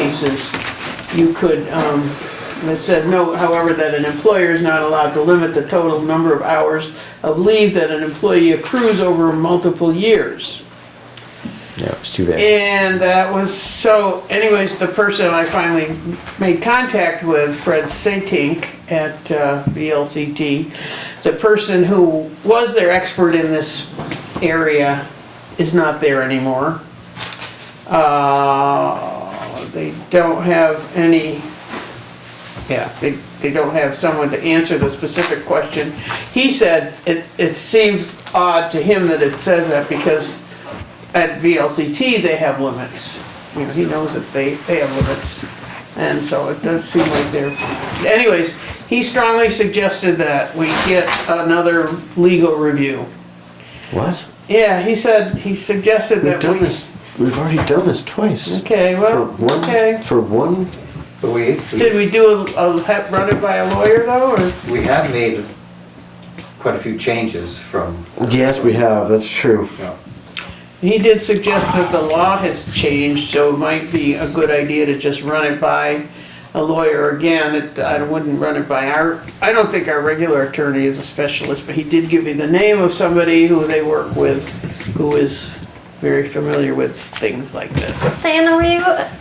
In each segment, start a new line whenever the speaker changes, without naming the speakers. cases, you could, um, it said, no, however, that an employer is not allowed to limit the total number of hours of leave that an employee accrues over multiple years.
Yeah, it's too bad.
And that was, so anyways, the person I finally made contact with, Fred Satink at uh, VLCT, the person who was their expert in this area is not there anymore. Uh, They don't have any, yeah, they, they don't have someone to answer the specific question. He said, it, it seems odd to him that it says that because at VLCT, they have limits. You know, he knows that they, they have limits. And so it does seem like they're, anyways, he strongly suggested that we get another legal review.
What?
Yeah, he said, he suggested
We've
that
done
we.
this. We've already done this twice.
Okay,
For
well,
one.
okay.
For one.
But we,
Did
we,
we do a, a, have- run it by a lawyer though, or?
we have made quite a few changes from,
Yes, we have. That's true.
you know,
He did suggest that the law has changed, so it might be a good idea to just run it by a lawyer again. It- I wouldn't run it by our, I don't think our regular attorney is a specialist, but he did give me the name of somebody who they work with, who is very familiar with things like this.
Diana, were you,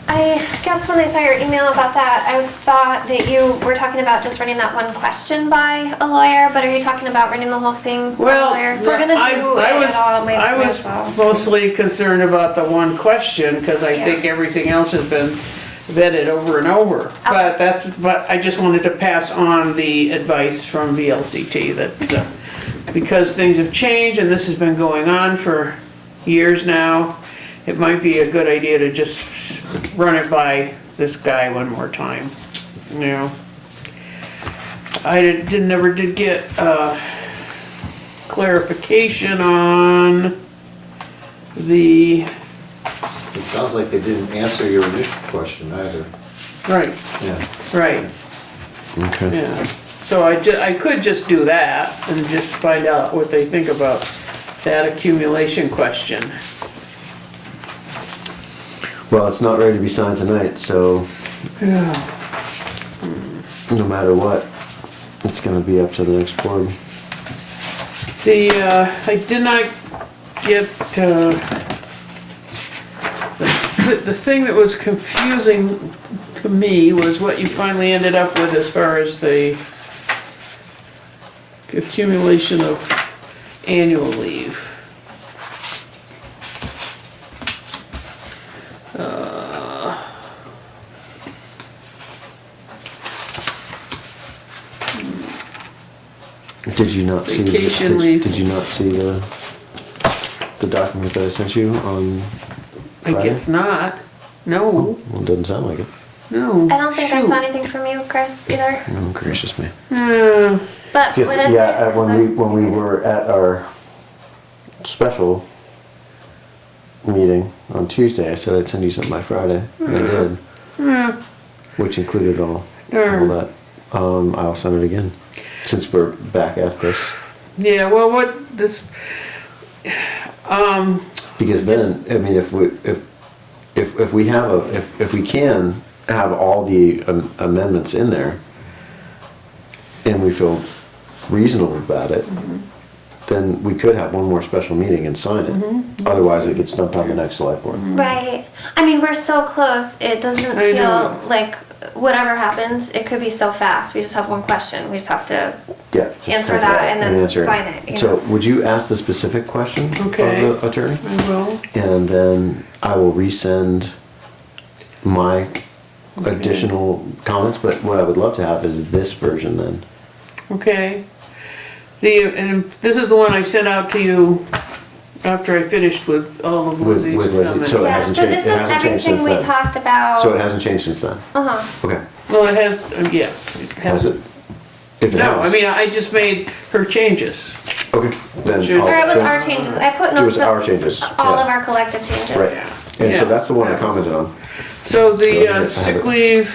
I guess when I saw your email about that, I thought that you were talking about just running that one question by a lawyer, but are you talking about running the whole thing by a
Well,
lawyer? If we're gonna
I-
do
I
it
was-
at all, might
I
might
was
as well.
mostly concerned about the one question, because I
Yeah.
think everything else has been vetted over and over. But that's, but I just wanted to pass on the advice from VLCT that, uh, because things have changed and this has been going on for years now, it might be a good idea to just run it by this guy one more time, you know? I didn't, didn't- never did get, uh, clarification on the,
it sounds like they didn't answer your initial question either.
right,
Yeah,
right,
Okay.
yeah. So I ju, I could just do that and just find out what they think about that accumulation question.
Well, it's not ready to be signed tonight, so
Yeah.
no matter what, it's going to be up to the next board.
The, uh, I did not get, uh, the, the thing that was confusing to me was what you finally ended up with as far as the accumulation of annual leave.
Did you not see?
Vacation
the, did,
leave.
Did you not see the the document that I sent you on?
I
Friday?
guess not. No,
Well, it doesn't sound like it.
no.
I don't think I
shoot.
saw anything from you, Chris, either,
Oh, gracious me.
Uh,
but
Because
what is it?
yeah, at- when we
Is
when we were at our special meeting on Tuesday, I said I'd send you something by Friday, and I did, which included all all that. Um, I'll send it again since we're back at this
Yeah, well, what, this, um,
because then I mean if we if if if we have a if if we can have all the am- amendments in there and we feel reasonable about it.
Mm-hmm.
Then we could have one more special meeting and sign it. Otherwise, it gets dumped on the next select board.
that- Right, I mean, we're so close, it doesn't
I know.
feel like whatever happens, it could be so fast, we just have one question, we just have to
Yeah. just
Answer
type it
that
out
and then
answer
sign it, yeah.
So, would you ask the specific question of
Okay.
the attorney,
I will,
and then I will resend my additional comments. But what I would love to have is this version then.
okay. The, and this is the one I sent out to you after I finished with all of
With-
Lizzie's
with Lizzie,
comments.
so- It
Yeah,
hasn't
so
changed-
this
it
is
hasn't changed
everything
since
we
then.
talked about.
Oh.
So it hasn't changed since then.
Uh-huh,
Okay.
Well, it has, uh, yeah. it
Has
has-
it? If it
No, I
has.
mean, I just made her changes.
Okay. Then.
Sure.
I'll-
or it was
then-
our changes, I put
It was
notes
our
of
changes.
all
yeah.
of our collective changes.
Right. And
Yeah.
so that's the one I commented on.
So the
I have
uh,
it.
sick leave,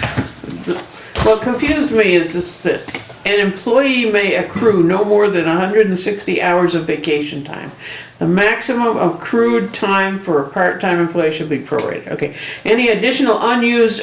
the- what confused me is this, this. An employee may accrue no more than hundred and sixty hours of vacation time. The maximum accrued time for a part-time employee should be prorated, okay. Any additional unused